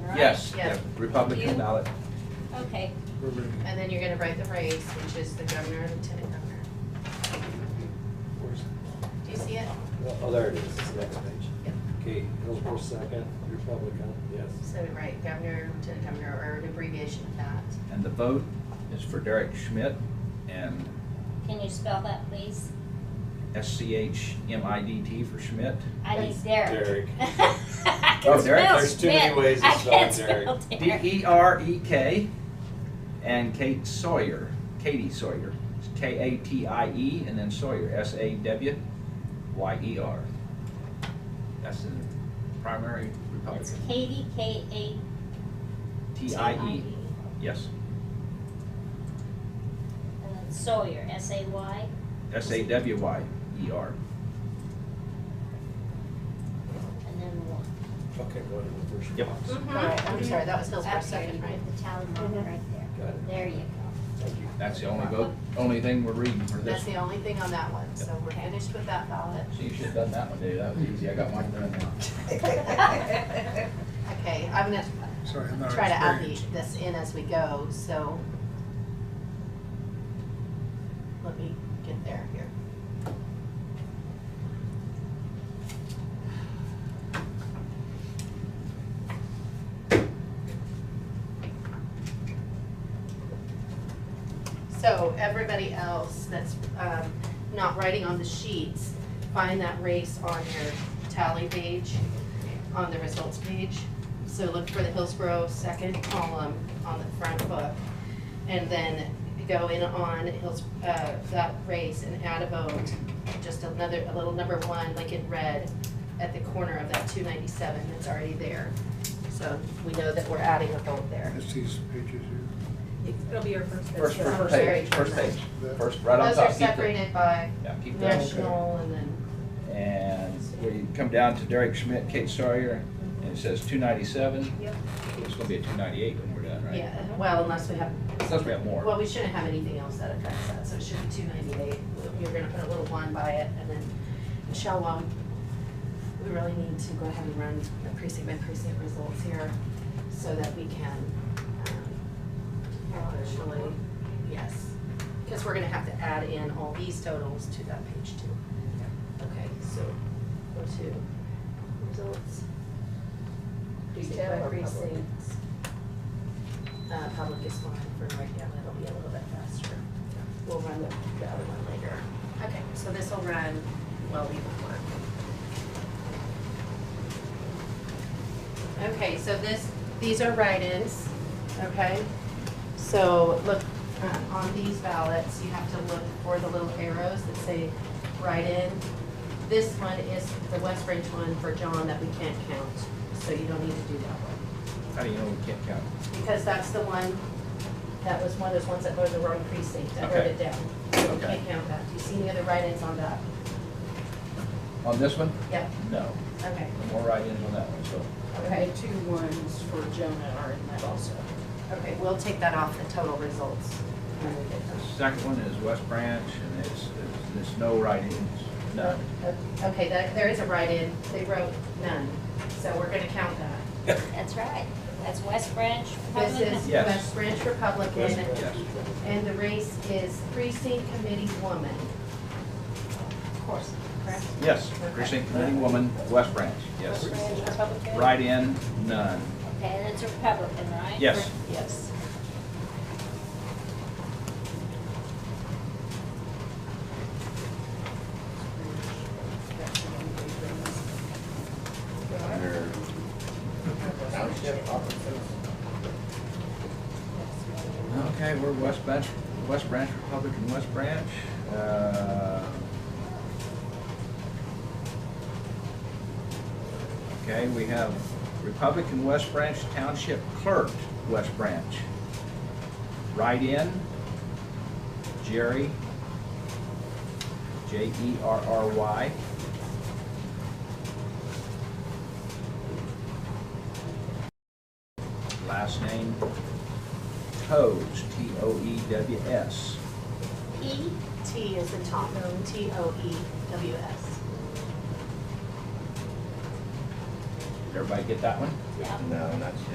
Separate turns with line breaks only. right?
Yes,
Yeah.
Republican
You-
ballot.
Okay,
And then you're gonna write the race, which is the governor, lieutenant governor. Do you see it?
Oh, there it is, it's the next page.
Yep.
Okay, Hillsborough second, Republican, yes.
So write governor, lieutenant governor, or an abbreviation of that.
And the vote is for Derek Schmidt and
can you spell that, please?
S-C-H-M-I-D-T for Schmidt.
I need Derek.
Derek.
I can
Oh, Derek,
spell
there's too many
Schmidt.
ways to
I
spell
can't
Derek. E.
spell Derek.
E D-E-R-E-K and Kate Sawyer, Katie Sawyer. It's K-A-T-I-E E and then Sawyer, S-A-W-Y-E-R. E That's the primary
It's
Republican.
Katie, K A
E.
E.
T-I-E, yes.
And then Sawyer, S A Y.
S-A-W-Y-E-R.
And then one.
Okay, go ahead with the first.
Yep.
box.
Right, I'm sorry, that was Hillsborough
Up there,
second,
you
right?
put the tally mark right
Mm-hmm.
there.
Got it.
There you go.
Thank you.
That's the only vote, only thing we're reading for
That's
this.
the only thing on that one, so we're finished with that ballot.
So you should have done that one, Dave, that was easy, I got mine done now.
Okay, I'm gonna
Sorry, I'm not
try to add the,
experienced.
this in as we go, so. Let me get there here. So everybody else that's um, not writing on the sheets, find that race on your tally page, on the results page. So look for the Hillsborough second column on the front book. And then go in on Hills, uh, that race and add a vote, just another, a little number one, like in red, at the corner of that two ninety-seven that's already there. So we know that we're adding a vote there.
That's these pages here.
It'll be your first.
First,
bid.
first
Very
page, first page,
That-
first, right on
Those
top.
are
keep the-
separated by
Yeah, keep that.
national and then,
And we come down to Derek Schmidt, Kate Sawyer, and it says two ninety-seven.
Yep.
It's gonna be a two ninety-eight when we're done, right?
yeah, well, unless we have,
Unless we have more.
well, we shouldn't have anything else that affects that, so it should be two ninety-eight. You're gonna put a little one by it, and then, Michelle, um, we really need to go ahead and run the precinct by precinct results here, so that we can, um, actually, yes. Because we're gonna have to add in all these totals to that page too. Okay, so, go to results. Precinct by precinct. Uh, public is fine for right now, that'll be a little bit faster. We'll run the, the other one later. Okay, so this will run while we work. Okay, so this, these are write-ins, okay? So look, uh, on these ballots, you have to look for the little arrows that say write-in. This one is the West Branch one for John that we can't count, so you don't need to do that one
How do you know we can't count?
because that's the one, that was one of those ones that voted the wrong precinct, I wrote
Okay.
it down. So we
Okay.
can't count that, do you see any other write-ins on that?
On this one?
Yep,
No,
okay,
no more write-ins on that one, so.
okay,
And the two ones for Jonah are in that also.
okay, we'll take that off the total results when we get
The
them.
second one is West Branch, and it's, it's- there's no write-ins, none.
Okay, that, there is a write-in, they wrote none, so we're gonna count that.
That's right. That's West Branch. Republican.
This is
Yes.
West Branch
Yes,
Republican,
yes.
and the race is precinct committee woman. Of course, correct?
Yes, precinct committee woman, West Branch, yes.
Branch Republican.
Write-in, none.
Okay, and it's a Republican, right?
Yes.
Yes.
Under township offices.
Okay, we're West Branch, West Branch Republican, West Branch. Uh, Okay, we have Republican West Branch Township Clerk, West Branch. Write-in, Jerry, E J-E-R-R-Y. Last name, Toews, E T-O-E-W-S.
E,
T is in Tom, T O E W S.
Everybody get that one?
yeah.
No, not yet.